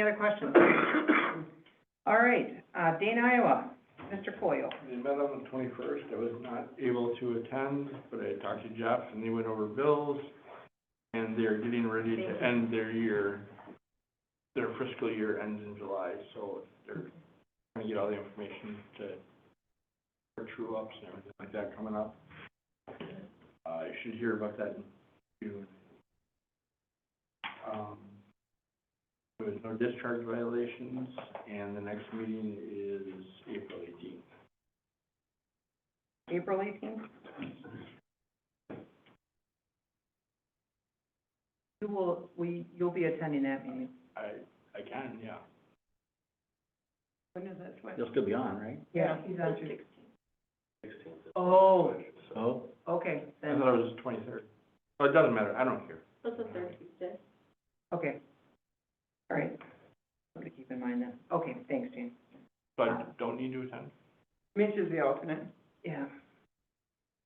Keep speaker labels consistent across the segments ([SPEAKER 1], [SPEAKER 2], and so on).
[SPEAKER 1] Any other questions? All right, uh, Dane, Iowa, Mr. Coyle.
[SPEAKER 2] They met on the twenty-first, I was not able to attend, but I talked to Jeff and they went over bills, and they're getting ready to end their year. Their fiscal year ends in July, so they're trying to get all the information to, for true ups and everything like that coming up. Uh, you should hear about that in June. Um, there was no discharge violations, and the next meeting is April eighteenth.
[SPEAKER 1] April eighteenth? You will, we, you'll be attending that meeting.
[SPEAKER 2] I, I can, yeah.
[SPEAKER 1] When is that?
[SPEAKER 3] You'll still be on, right?
[SPEAKER 1] Yeah, he's on Tuesday.
[SPEAKER 2] Sixteenth.
[SPEAKER 1] Oh,
[SPEAKER 3] Oh.
[SPEAKER 1] okay,
[SPEAKER 2] I
[SPEAKER 1] then,
[SPEAKER 3] Uh-huh.
[SPEAKER 2] thought it was twenty-third. So it doesn't matter, I don't care.
[SPEAKER 4] That's the third Tuesday.
[SPEAKER 1] okay. All right, something to keep in mind then. Okay, thanks, Jane.
[SPEAKER 2] So I don't need to attend?
[SPEAKER 1] Mitch is the alternate. Yeah.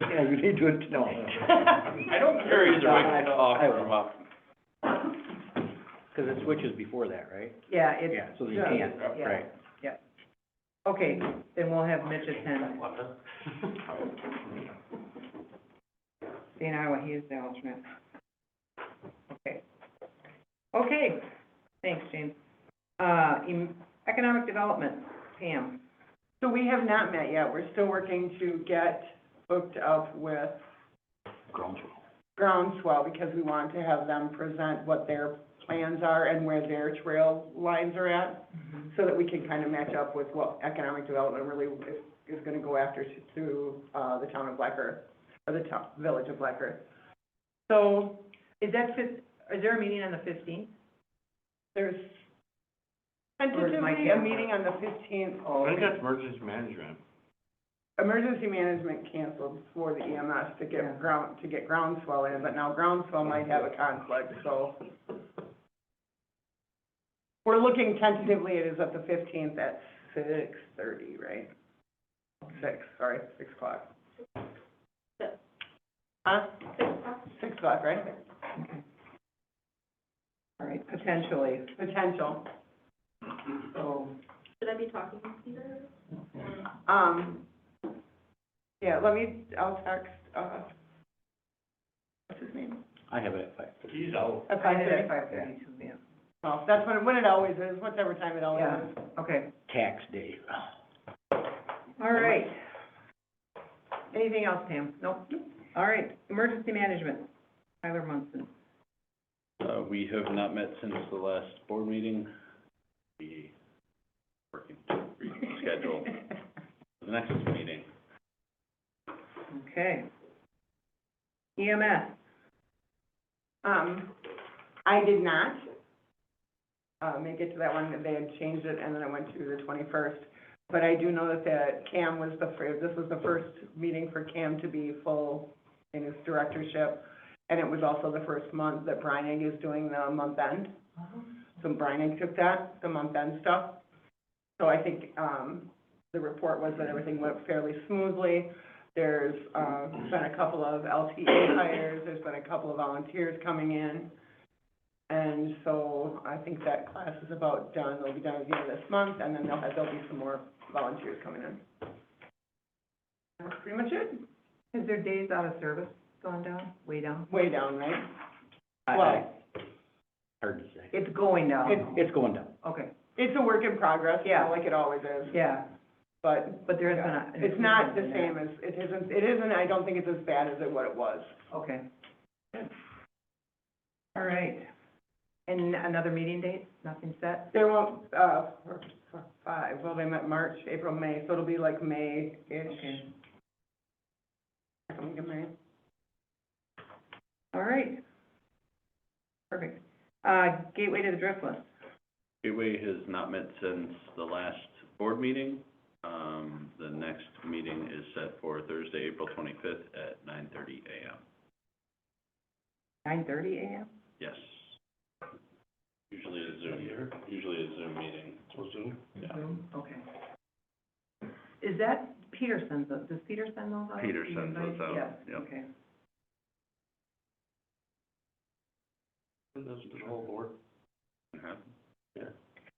[SPEAKER 3] Yeah, you need to, no.
[SPEAKER 2] I don't care either, I can talk
[SPEAKER 3] I
[SPEAKER 2] from
[SPEAKER 3] will,
[SPEAKER 2] up.
[SPEAKER 3] because it switches before that, right?
[SPEAKER 1] Yeah, it's,
[SPEAKER 3] Yeah, so you
[SPEAKER 1] yeah,
[SPEAKER 3] can't,
[SPEAKER 1] yeah.
[SPEAKER 3] right.
[SPEAKER 1] okay, then we'll have Mitch attend. Dane, Iowa, he is the alternate. Okay. Okay, thanks, James. Uh, em- economic development, Pam.
[SPEAKER 5] So we have not met yet, we're still working to get booked up with Groundswell, because we want to have them present what their plans are and where their trail lines are at,
[SPEAKER 1] Mm-hmm.
[SPEAKER 5] so that we can kind of match up with what economic development really is, is gonna go after to, to, uh, the town of Black Earth, or the town, village of Black Earth. So,
[SPEAKER 1] Is that fif- is there a meeting on the fifteenth?
[SPEAKER 5] there's
[SPEAKER 1] Where's my
[SPEAKER 5] tentatively a
[SPEAKER 1] camera?
[SPEAKER 5] meeting on the fifteenth,
[SPEAKER 2] I think that's emergency management.
[SPEAKER 5] emergency management canceled for the EMS to
[SPEAKER 1] Yeah.
[SPEAKER 5] get ground, to get groundswell in, but now groundswell might have a conflict, so. We're looking tentatively, it is at the fifteenth at six thirty, right? Six, sorry, six o'clock.
[SPEAKER 4] Six.
[SPEAKER 5] Huh? Six o'clock, right?
[SPEAKER 1] All right, potentially,
[SPEAKER 5] Potential.
[SPEAKER 1] so,
[SPEAKER 4] Should I be talking to Peter?
[SPEAKER 5] Um, yeah, let me, I'll text, uh, what's his name?
[SPEAKER 3] I have it at five.
[SPEAKER 2] He's out.
[SPEAKER 5] At
[SPEAKER 1] I had it
[SPEAKER 5] 5:30.
[SPEAKER 1] at five thirty-two, yeah,
[SPEAKER 5] Well, that's what, it- what it always is, whatever time it always
[SPEAKER 1] Yeah.
[SPEAKER 5] is.
[SPEAKER 1] okay,
[SPEAKER 3] Tax day.
[SPEAKER 1] all right. Anything else, Pam? Nope. All right, emergency management, Tyler Munson.
[SPEAKER 6] Uh, we have not met since the last board meeting. We working to reschedule the next meeting.
[SPEAKER 1] Okay. E EMS,
[SPEAKER 5] Um, I did not, uh, make it to that one, they had changed it, and then I went to the twenty-first. But I do know that the Cam was the fir, this was the first meeting for Cam to be full in his directorship, and it was also the first month that Brian is doing the month end. So Brian took that, the month end stuff. So I think, um, the report was that everything went fairly smoothly. There's, uh, been a couple of LTA hires, there's been a couple of volunteers coming in. And so I think that class is about done, they'll be done at the end of this month, and then there'll, have- there'll be some more volunteers coming in. That's pretty much it,
[SPEAKER 1] has their days out of service gone down, way down?
[SPEAKER 5] way down, right?
[SPEAKER 3] I- I-
[SPEAKER 5] Well,
[SPEAKER 3] Hard to say.
[SPEAKER 1] It's going
[SPEAKER 3] It,
[SPEAKER 1] down,
[SPEAKER 3] it's going down.
[SPEAKER 1] okay,
[SPEAKER 5] it's a work in progress, you know,
[SPEAKER 1] Yeah.
[SPEAKER 5] like it always is,
[SPEAKER 1] yeah,
[SPEAKER 5] but
[SPEAKER 1] but there has been a.
[SPEAKER 5] It's not the
[SPEAKER 1] improvement in
[SPEAKER 5] same as, it isn't, it isn't, I don't think it's as bad as it, what it was.
[SPEAKER 1] that. Okay. All right, and another meeting date, nothing set?
[SPEAKER 5] There won't, uh, for- for five, well, they met March, April, May, so it'll be like May-ish,
[SPEAKER 1] Okay.
[SPEAKER 5] second week of May.
[SPEAKER 1] All right. Perfect. Uh, gateway to the Driftwood,
[SPEAKER 6] Gateway has not met since the last board meeting. Um, the next meeting is set for Thursday, April twenty-fifth at nine thirty AM.
[SPEAKER 1] nine thirty AM?
[SPEAKER 6] Yes. Usually a Zoom, usually a Zoom meeting. Zoom? Yeah.
[SPEAKER 1] Zoom? Okay. Is that, Peter sends those, does Peter send those out?
[SPEAKER 6] Peter
[SPEAKER 1] Do you
[SPEAKER 6] sends
[SPEAKER 1] invite?
[SPEAKER 6] those out,
[SPEAKER 1] Yeah,
[SPEAKER 6] yep.
[SPEAKER 1] okay.
[SPEAKER 2] And This is the whole board.
[SPEAKER 6] Uh-huh.